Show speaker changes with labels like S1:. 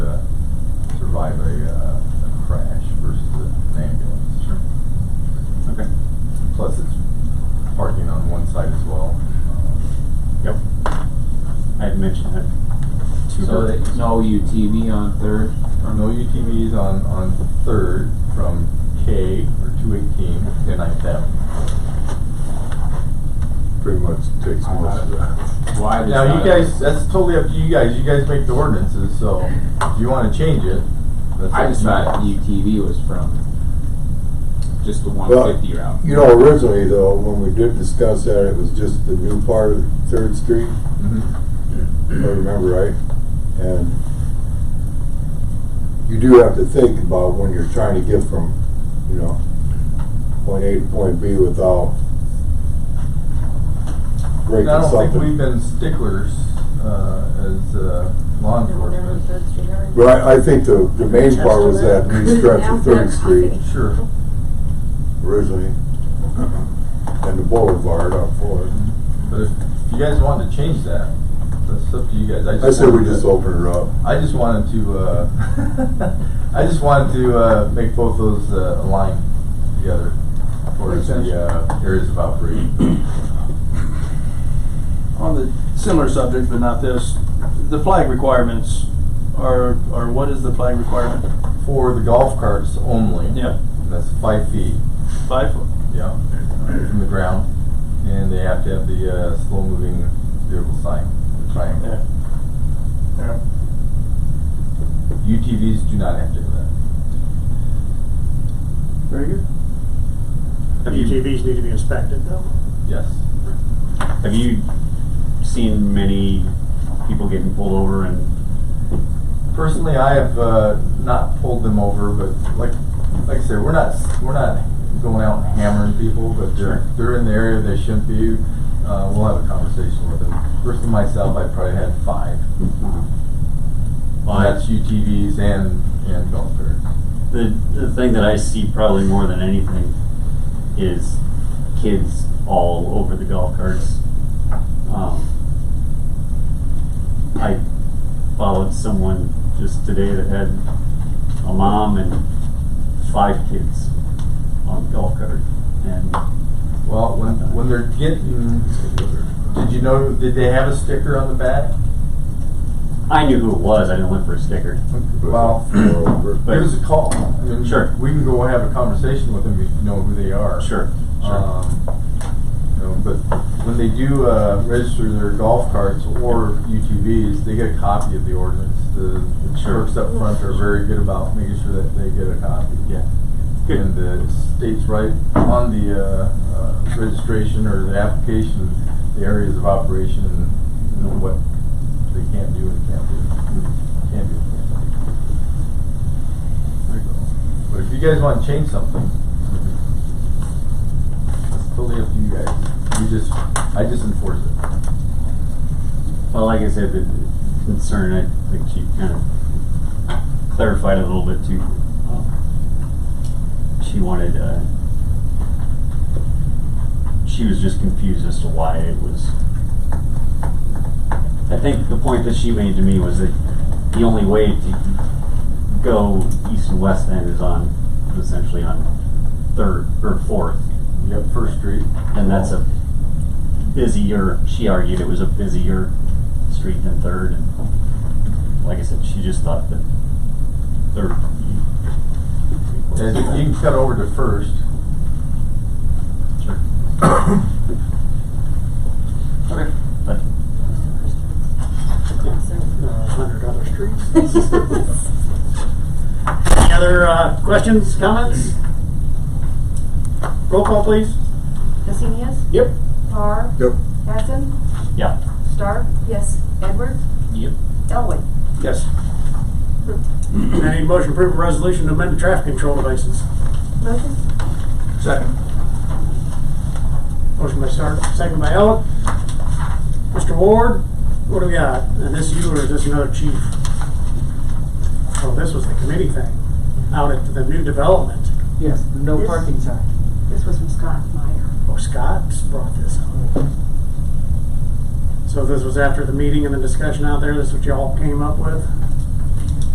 S1: uh, survive a, uh, a crash versus an ambulance.
S2: Sure. Okay.
S1: Plus, it's parking on one side as well.
S2: Yep. I had mentioned that. to
S1: So
S2: her.
S1: they-
S3: No UTV on third.
S1: Our no UTVs on, on third from K or two eighteen to Ninth Avenue.
S4: Pretty much takes
S2: I'm
S4: most
S2: not-
S4: of that.
S3: Why? does
S1: Now, you
S3: that-
S1: guys, that's totally up to you guys. You guys make the ordinances, so if you wanna change it, that's.
S3: I
S1: up
S3: just
S1: to you.
S3: thought UTV was from just the one fifty route.
S4: You know, originally though, when we did discuss that, it was just the new part of Third Street,
S1: Mhm.
S4: if I remember right. And you do have to think about when you're trying to get from, you know, point A to point B without breaking
S1: And I don't think we've
S4: something.
S1: been sticklers, uh, as, uh, law enforcement.
S4: But I, I think the, the main part was that new stretch of Third Street
S1: Sure.
S4: originally. And the boulevard on Fourth.
S1: But if if you guys wanted to change that, that's up to you guys.
S4: I said we
S1: wanted
S4: just
S1: to-
S4: open her up.
S1: I just wanted to, uh, I just wanted to, uh, make both those, uh, align together for
S5: Makes sense.
S1: the, uh, areas of operation.
S5: On the similar subject, but not this, the flag requirements are, are what is the flag requirement?
S1: For the golf carts only.
S5: Yeah,
S1: And That's five feet,
S5: five foot.
S1: yeah, from the ground. And they have to have the, uh, slow-moving vehicle sign, the triangle.
S5: Yeah. Yeah.
S1: UTVs do not have to have that.
S5: Very good.
S2: Have you
S6: UTVs need to be inspected though.
S1: Yes.
S2: have you seen many people getting pulled over and
S1: Personally, I have, uh, not pulled them over, but like, like I said, we're not, we're not going out and hammering people, but
S2: Sure.
S1: they're, they're in the area they shouldn't be. Uh, we'll have a conversation with them. Personally, myself, I probably had five.
S2: Well,
S1: That's UTVs and, and golf carts.
S2: The, the thing that I see probably more than anything is kids all over the golf carts. Um, I followed someone just today that had a mom and five kids on the golf cart. And
S1: Well, when, when they're getting, did you know, did they have a sticker on the back?
S2: I knew who it was, I didn't look for a sticker.
S1: Well,
S2: But-
S1: give us a call. I mean,
S2: Sure.
S1: We can go have a conversation with them if you know who they are.
S2: Sure, sure.
S1: Um, you know, but when they do, uh, register their golf carts or UTVs, they get a copy of the ordinance. The the
S2: Sure.
S1: clerks up front are very good about making sure that they get a copy.
S2: Yeah.
S1: And the states right on the, uh, uh, registration or the application, the areas of operation and, you know, what they can do and can't do.
S2: Mm-hmm.
S1: Can't do and can't do. There you go. But if you guys wanna change something, it's totally up to you guys. You just, I just enforce it.
S2: Well, like I said, the the concern, I think she kind of clarified it a little bit too. Um, She wanted, uh, she was just confused as to why it was. I think the point that she made to me was that the only way to go east and west then is on, essentially on third or fourth.
S1: You have First Street.
S2: And that's a busier, she argued it was a busier street than Third. And like I said, she just thought that Third.
S1: And you can cut over to First.
S2: Sure.
S5: Okay.
S2: But
S6: Hundred other streets.
S5: Any other uh, questions, comments? Roll call, please.
S7: Cassinius?
S5: Yep.
S7: Parr?
S4: Yep.
S7: Hessen?
S2: Yeah.
S7: Stark? Yes. Edwards?
S2: Yep.
S7: Elway?
S5: Yes. I need a motion to approve a resolution to amend the traffic control devices.
S7: Motion?
S5: Second. Motion by Stark, second by Ellen. Mr. Ward, what do we got? And this you or is this another chief? Oh, this was the committee thing, out at the new development.
S8: Yes, no
S7: This-
S8: parking sign.
S7: This was from Scott Meyer.
S5: Oh, Scott's brought this up. So this was after the meeting and the discussion out there, this is what y'all came up with?